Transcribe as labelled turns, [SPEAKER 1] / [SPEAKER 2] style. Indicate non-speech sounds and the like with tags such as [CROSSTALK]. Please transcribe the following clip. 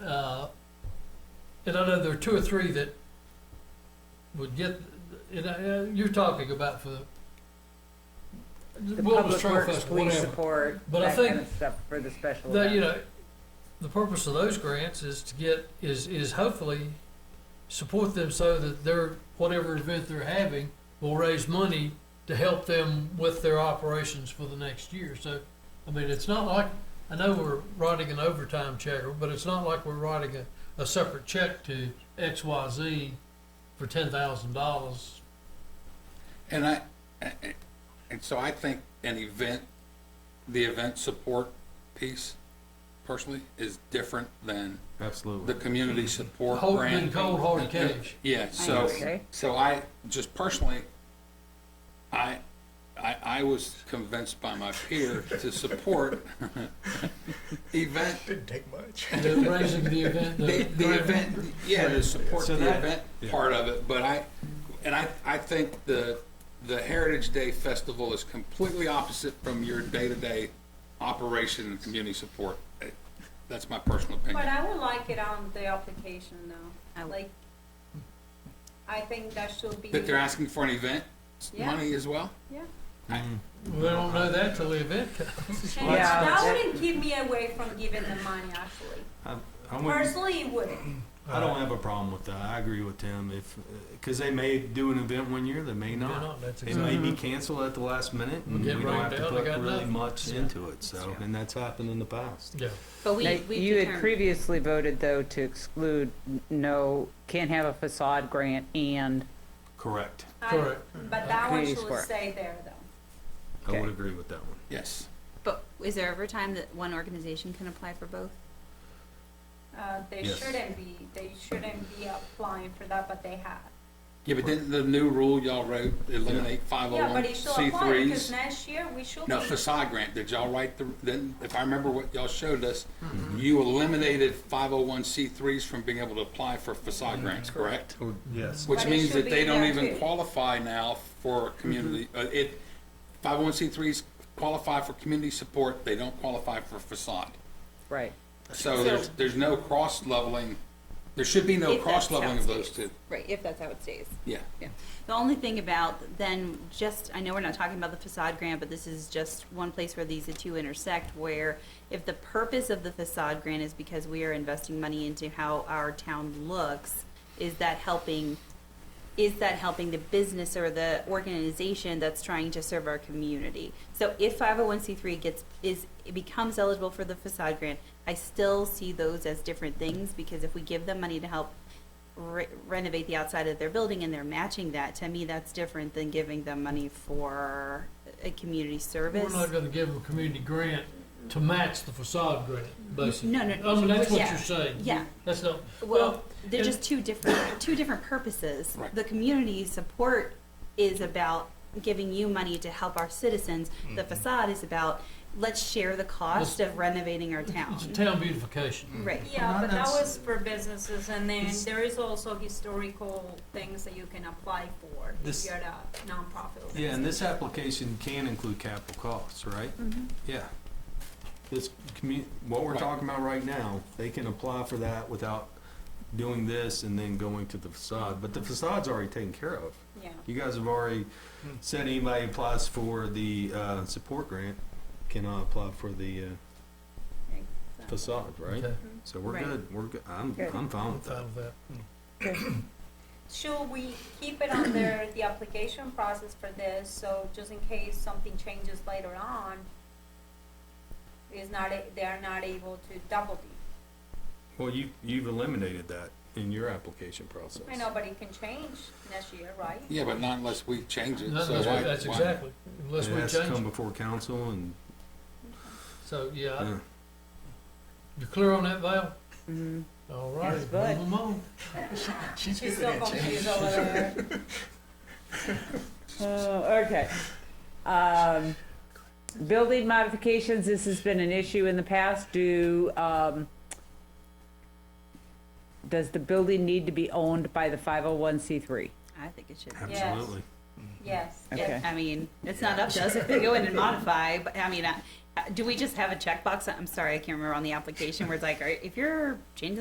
[SPEAKER 1] Uh, And I know there are two or three that would get, and I, uh, you're talking about for
[SPEAKER 2] The
[SPEAKER 1] the Wilderness
[SPEAKER 2] public
[SPEAKER 1] Trail
[SPEAKER 2] works,
[SPEAKER 1] Fest,
[SPEAKER 2] police
[SPEAKER 1] whatever.
[SPEAKER 2] support,
[SPEAKER 1] But I
[SPEAKER 2] that kind
[SPEAKER 1] think
[SPEAKER 2] of stuff for the special
[SPEAKER 1] The, you
[SPEAKER 2] event.
[SPEAKER 1] know, the purpose of those grants is to get, is, is hopefully support them so that their, whatever event they're having will raise money to help them with their operations for the next year. So, I mean, it's not like, I know we're writing an overtime check, but it's not like we're writing a, a separate check to XYZ for ten thousand dollars.
[SPEAKER 3] And I, and so I think an event, the event support piece personally is different than the
[SPEAKER 4] Absolutely.
[SPEAKER 3] community support
[SPEAKER 1] Cold-
[SPEAKER 3] grant.
[SPEAKER 1] than cold hard cash.
[SPEAKER 3] Yeah, so,
[SPEAKER 2] Okay.
[SPEAKER 3] so I, just personally, I, I, I was convinced by my peer to support [LAUGHS] event,
[SPEAKER 5] Didn't take much.
[SPEAKER 1] Raising the event.
[SPEAKER 3] the, the event, yeah, to support
[SPEAKER 4] So
[SPEAKER 3] the
[SPEAKER 4] that-
[SPEAKER 3] event
[SPEAKER 4] yeah.
[SPEAKER 3] part of it, but I, and I, I think the, the Heritage Day Festival is completely opposite from your day-to-day operation and community support. Eh, That's my personal
[SPEAKER 6] But
[SPEAKER 3] opinion.
[SPEAKER 6] I would like it on the application now, like, I think that should be.
[SPEAKER 3] That they're asking for an event
[SPEAKER 6] Yeah.
[SPEAKER 3] money as well?
[SPEAKER 6] Yeah.
[SPEAKER 1] They don't know that till the event comes.
[SPEAKER 6] And
[SPEAKER 2] Yeah.
[SPEAKER 6] that wouldn't keep me away from giving the money, actually.
[SPEAKER 4] I, I'm with,
[SPEAKER 6] Personally, it wouldn't.
[SPEAKER 4] I don't have a problem with that. I agree with Tim. If because they may do an event one year, they may
[SPEAKER 1] They're
[SPEAKER 4] not.
[SPEAKER 1] That's
[SPEAKER 4] It
[SPEAKER 1] exactly.
[SPEAKER 4] may be canceled at the last minute, and
[SPEAKER 1] Get
[SPEAKER 4] we
[SPEAKER 1] rained
[SPEAKER 4] don't have to
[SPEAKER 1] out, they
[SPEAKER 4] put
[SPEAKER 1] got
[SPEAKER 4] really
[SPEAKER 1] nothing.
[SPEAKER 4] much into it. So, and that's happened in the past.
[SPEAKER 1] Yeah.
[SPEAKER 7] But we,
[SPEAKER 2] Now,
[SPEAKER 7] we
[SPEAKER 2] You had
[SPEAKER 7] determined,
[SPEAKER 2] previously voted, though, to exclude, n- no, can't have a facade grant and,
[SPEAKER 4] Correct.
[SPEAKER 6] I-
[SPEAKER 1] Correct.
[SPEAKER 6] But that one
[SPEAKER 2] Community
[SPEAKER 6] should
[SPEAKER 2] support.
[SPEAKER 6] stay there, though.
[SPEAKER 4] I
[SPEAKER 2] Okay.
[SPEAKER 4] would agree with that one.
[SPEAKER 3] Yes.
[SPEAKER 7] but is there ever a time that one organization can apply for both?
[SPEAKER 6] Uh, they
[SPEAKER 4] Yes.
[SPEAKER 6] shouldn't be, they shouldn't be applying for that, but they have.
[SPEAKER 3] Yeah, but didn't the new rule y'all wrote eliminate
[SPEAKER 6] Yeah, but it should apply, because
[SPEAKER 3] 501c3s?
[SPEAKER 6] next year, we should be.
[SPEAKER 3] No, facade grant, did y'all write the, then, if I remember what y'all showed us, you eliminated 501c3s from being able to apply for facade grants, Mm-hmm. correct?
[SPEAKER 4] Oh, Yes.
[SPEAKER 3] Which
[SPEAKER 6] But it
[SPEAKER 3] means that
[SPEAKER 6] should be
[SPEAKER 3] they
[SPEAKER 6] in
[SPEAKER 3] don't
[SPEAKER 6] there,
[SPEAKER 3] even
[SPEAKER 6] too.
[SPEAKER 3] qualify now for community, uh, it, 501c3s qualify for community support, they don't qualify for facade.
[SPEAKER 2] right.
[SPEAKER 3] So there's, there's no cross leveling, there should be no
[SPEAKER 7] If that's
[SPEAKER 3] cross leveling of
[SPEAKER 7] how it
[SPEAKER 3] those
[SPEAKER 7] stays.
[SPEAKER 3] two,
[SPEAKER 7] Right, if that's how it stays.
[SPEAKER 3] yeah.
[SPEAKER 7] Yeah. The only thing about then just, I know we're not talking about the facade grant, but this is just one place where these two intersect, where if the purpose of the facade grant is because we are investing money into how our town looks, is that helping, is that helping the business or the organization that's trying to serve our community? So if 501c3 gets, is, it becomes eligible for the facade grant, I still see those as different things because if we give them money to help re- renovate the outside of their building and they're matching that, to me, that's different than giving them money for a community
[SPEAKER 1] We're
[SPEAKER 7] service.
[SPEAKER 1] not gonna give them a community grant to match the facade grant, basically.
[SPEAKER 7] No, no,
[SPEAKER 1] I mean, Oh, that's what
[SPEAKER 7] yeah.
[SPEAKER 1] you're saying.
[SPEAKER 7] Yeah.
[SPEAKER 1] That's not, well,
[SPEAKER 7] Well, they're
[SPEAKER 1] and-
[SPEAKER 7] just two different, two different purposes.
[SPEAKER 3] Right.
[SPEAKER 7] The community support is about giving you money to help our citizens. The
[SPEAKER 1] Mm-hmm.
[SPEAKER 7] facade is about, let's share the cost of renovating our
[SPEAKER 1] it's
[SPEAKER 7] town.
[SPEAKER 1] town beautification.
[SPEAKER 7] Right.
[SPEAKER 6] Yeah,
[SPEAKER 5] Well,
[SPEAKER 6] but that
[SPEAKER 5] that's-
[SPEAKER 6] was for businesses, and then there is also historical things that you can apply for if
[SPEAKER 4] This-
[SPEAKER 6] you're a nonprofit.
[SPEAKER 4] Yeah,
[SPEAKER 6] organization.
[SPEAKER 4] and this application can include capital costs, right? Yeah. This commu, what we're
[SPEAKER 3] Right.
[SPEAKER 4] talking about right now, they can apply for that without doing this and then going to the facade, but the facade's already taken care of.
[SPEAKER 6] Yeah.
[SPEAKER 4] You guys have already said anybody applies for the, uh, support grant cannot apply for the, uh, facade, right?
[SPEAKER 1] Okay,
[SPEAKER 4] So we're
[SPEAKER 7] Right.
[SPEAKER 4] good, we're good, I'm,
[SPEAKER 2] Good.
[SPEAKER 4] I'm fine
[SPEAKER 1] I'm
[SPEAKER 4] with that.
[SPEAKER 1] fine with that.
[SPEAKER 6] Should we keep it under the application process for this, so just in case something changes later on, is not, a- they are not able to double the,
[SPEAKER 4] Well, you, you've eliminated that in your application process.
[SPEAKER 6] I know, but it can change next year, right?
[SPEAKER 3] Yeah, but not unless we change it,
[SPEAKER 1] No,
[SPEAKER 3] so why?
[SPEAKER 1] That's that's
[SPEAKER 3] why-
[SPEAKER 1] exactly, unless
[SPEAKER 4] It
[SPEAKER 1] we
[SPEAKER 4] has to come
[SPEAKER 1] change it.
[SPEAKER 4] before council and,
[SPEAKER 1] So, yeah, I-
[SPEAKER 4] yeah.
[SPEAKER 1] you clear on that, Val?
[SPEAKER 7] Mm-hmm.
[SPEAKER 2] Mhm.
[SPEAKER 1] All right,
[SPEAKER 2] Yes, bud.
[SPEAKER 1] move 'em on.
[SPEAKER 5] She's good
[SPEAKER 6] She's so
[SPEAKER 5] at that, Jane.
[SPEAKER 6] confused over there.
[SPEAKER 2] Oh, okay. Um, building modifications, this has been an issue in the past. Do, um, does the building need to be owned by the 501c3?
[SPEAKER 7] I think it should be.
[SPEAKER 4] absolutely.
[SPEAKER 6] Yes.
[SPEAKER 2] Okay.
[SPEAKER 7] I mean, it's not up to us if they go in and modify, but uh, I mean, I- do we just have a checkbox? I'm sorry, I can't remember on the application where it's like, all right, if you're changing